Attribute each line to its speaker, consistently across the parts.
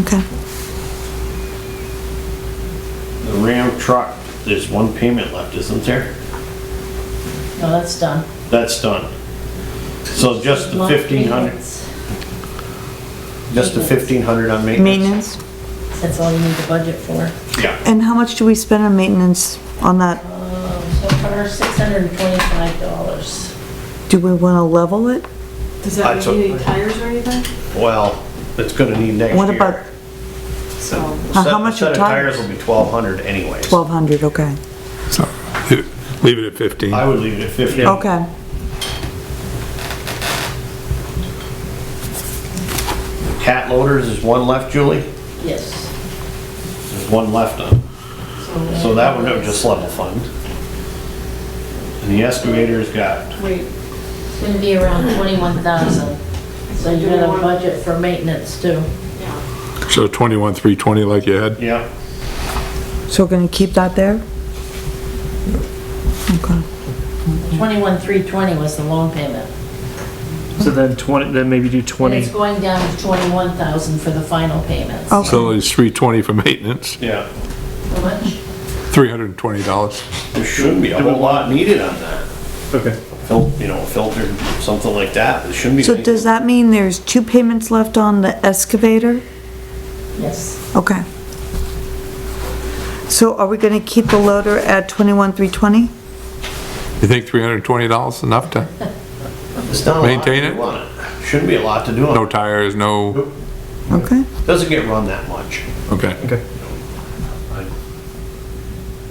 Speaker 1: Okay.
Speaker 2: The Ram truck, there's one payment left, isn't there?
Speaker 3: No, that's done.
Speaker 2: That's done. So just the
Speaker 3: Lot
Speaker 2: fifteen hundred,
Speaker 3: payments.
Speaker 2: just the fifteen hundred on maintenance?
Speaker 1: Maintenance?
Speaker 3: That's all you need the budget for.
Speaker 2: Yeah,
Speaker 1: And how much do we spend on maintenance on that?
Speaker 3: Um, So far, six hundred and twenty-five dollars.
Speaker 1: Do we wanna level it?
Speaker 4: Does
Speaker 2: Alright,
Speaker 4: that
Speaker 2: so-
Speaker 4: mean any tires or anything?
Speaker 2: well, it's gonna need next year.
Speaker 1: What about
Speaker 4: So,
Speaker 1: How-
Speaker 2: Set-
Speaker 1: how much
Speaker 2: Set
Speaker 1: are
Speaker 2: of
Speaker 1: tires?
Speaker 2: tires will be twelve hundred anyways.
Speaker 1: twelve hundred, okay?
Speaker 5: So, leave it at 15.
Speaker 2: I would leave it at fifteen.
Speaker 1: Okay.
Speaker 2: Cat loaders is one left, Julie?
Speaker 3: Yes.
Speaker 2: There's one left on. So that one, would just level fund. And the excavator's got,
Speaker 4: wait,
Speaker 3: It's gonna be around twenty-one thousand. So you're gonna have a budget for maintenance too.
Speaker 4: yeah,
Speaker 5: So 21, 320 like you had?
Speaker 2: yeah,
Speaker 1: So we're gonna keep that there? Okay.
Speaker 3: Twenty-one, three twenty was the loan payment.
Speaker 6: So then twenty, then maybe do
Speaker 3: And
Speaker 6: twenty.
Speaker 3: it's going down to twenty-one thousand for the final payments.
Speaker 1: Okay.
Speaker 5: So it's 320 for maintenance,
Speaker 2: yeah.
Speaker 3: How much?
Speaker 5: $320.
Speaker 2: There shouldn't be a whole lot needed on that.
Speaker 6: Okay.
Speaker 2: Fil, you know, filter, something like that, there shouldn't be.
Speaker 1: So does that mean there's two payments left on the excavator?
Speaker 3: Yes.
Speaker 1: Okay. So are we gonna keep the loader at twenty-one, three twenty?
Speaker 5: You think $320 is enough to,
Speaker 2: It's not a lot
Speaker 5: maintain
Speaker 2: to
Speaker 5: it?
Speaker 2: do on it. Shouldn't be a lot to do
Speaker 5: no
Speaker 2: on it.
Speaker 5: tires, no,
Speaker 1: Okay,
Speaker 2: Doesn't get run that much.
Speaker 5: okay.
Speaker 6: Okay.
Speaker 2: I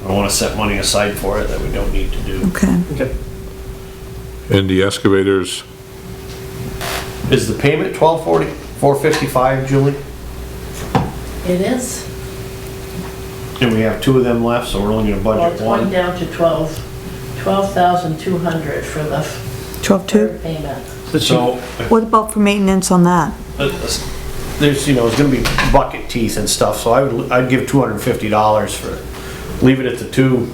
Speaker 2: I wanna set money aside for it that we don't need to do.
Speaker 1: okay.
Speaker 6: Okay.
Speaker 5: And the excavators,
Speaker 2: Is the payment twelve forty, four fifty-five, Julie?
Speaker 3: It is.
Speaker 2: And we have two of them left, so we're only gonna
Speaker 3: Well,
Speaker 2: budget
Speaker 3: it's going
Speaker 2: one.
Speaker 3: down to twelve, twelve thousand two hundred for the
Speaker 1: Twelve-two?
Speaker 3: third payment.
Speaker 6: So she-
Speaker 2: So,
Speaker 1: What about for maintenance on that?
Speaker 2: uh, there's, you know, it's gonna be bucket teeth and stuff, so I would, I'd give two hundred and fifty dollars for, leave it at the two,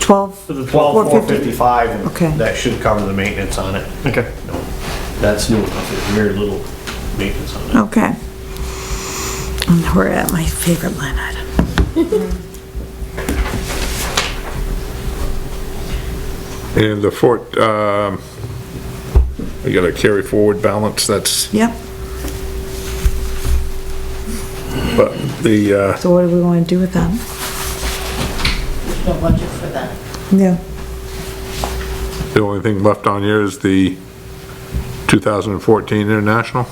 Speaker 1: Twelve?
Speaker 6: For the
Speaker 2: twelve, four
Speaker 1: 450.
Speaker 2: fifty-five,
Speaker 1: Okay.
Speaker 2: and that should cover the maintenance on it.
Speaker 6: Okay.
Speaker 2: No, That's new enough, there's very little maintenance on it.
Speaker 1: Okay. And we're at my favorite line item.
Speaker 5: and the fort, um, we got a carry forward balance, that's,
Speaker 1: Yep,
Speaker 5: but the, uh,
Speaker 1: so what do we want to do with that?
Speaker 3: There's no budget for that.
Speaker 1: Yeah.
Speaker 5: the only thing left on here is the 2014 International?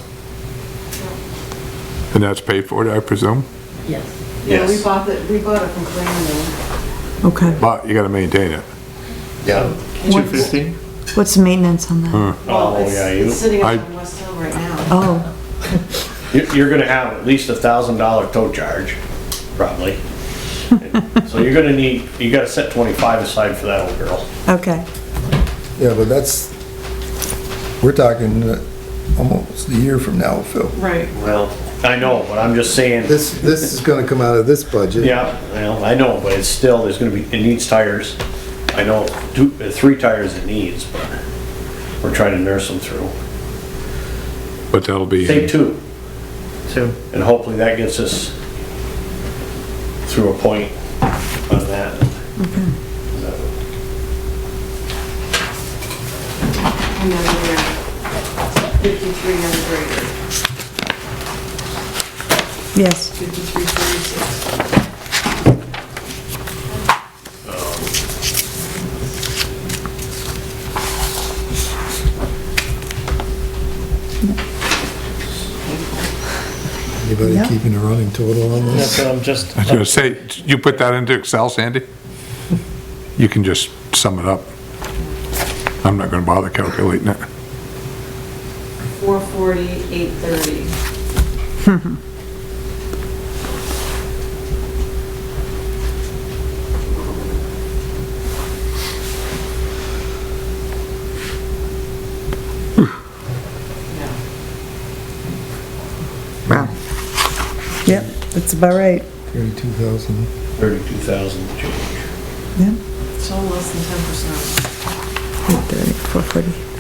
Speaker 5: And that's paid for, I presume?
Speaker 3: Yes.
Speaker 4: yeah, we
Speaker 2: Yes.
Speaker 4: bought it, we bought it from Clarendon.
Speaker 1: Okay.
Speaker 5: But you gotta maintain it.
Speaker 2: Yeah.
Speaker 6: Two fifty.
Speaker 1: What's the maintenance on that?
Speaker 2: Oh,
Speaker 4: Well, it's-
Speaker 2: yeah, you-
Speaker 4: It's sitting
Speaker 5: I-
Speaker 4: up on West Hill right now.
Speaker 1: Oh,
Speaker 2: You- You're gonna have at least a thousand dollar tow charge, probably. So you're gonna need, you gotta set twenty-five aside for that old girl.
Speaker 1: okay.
Speaker 7: Yeah, but that's, we're talking uh, almost a year from now, Phil.
Speaker 4: Right.
Speaker 2: Well. I know, but I'm just saying,
Speaker 7: This, this is gonna come out of this budget.
Speaker 2: yeah, well, I know, but it's still, there's gonna be, it needs tires. I know, two, uh, three tires it needs, but we're trying to nurse them through.
Speaker 5: But that'll be.
Speaker 2: Say two,
Speaker 6: Two.
Speaker 2: and hopefully that gets us through a point on that.
Speaker 4: Another year. Fifty-three on the grader,
Speaker 1: Yes,
Speaker 4: fifty-three forty-six.
Speaker 7: Anybody
Speaker 1: Yeah.
Speaker 7: keeping a running total on
Speaker 6: That's
Speaker 7: this?
Speaker 6: what I'm just.
Speaker 5: I was gonna say, you put that into Excel, Sandy? You can just sum it up. I'm not gonna bother calculating it.
Speaker 4: Four forty, eight thirty. Yeah.
Speaker 1: yep, that's about right.
Speaker 7: Thirty-two thousand.
Speaker 2: Thirty-two thousand change.
Speaker 1: Yep.
Speaker 4: It's all less than ten percent.
Speaker 1: 430, 440.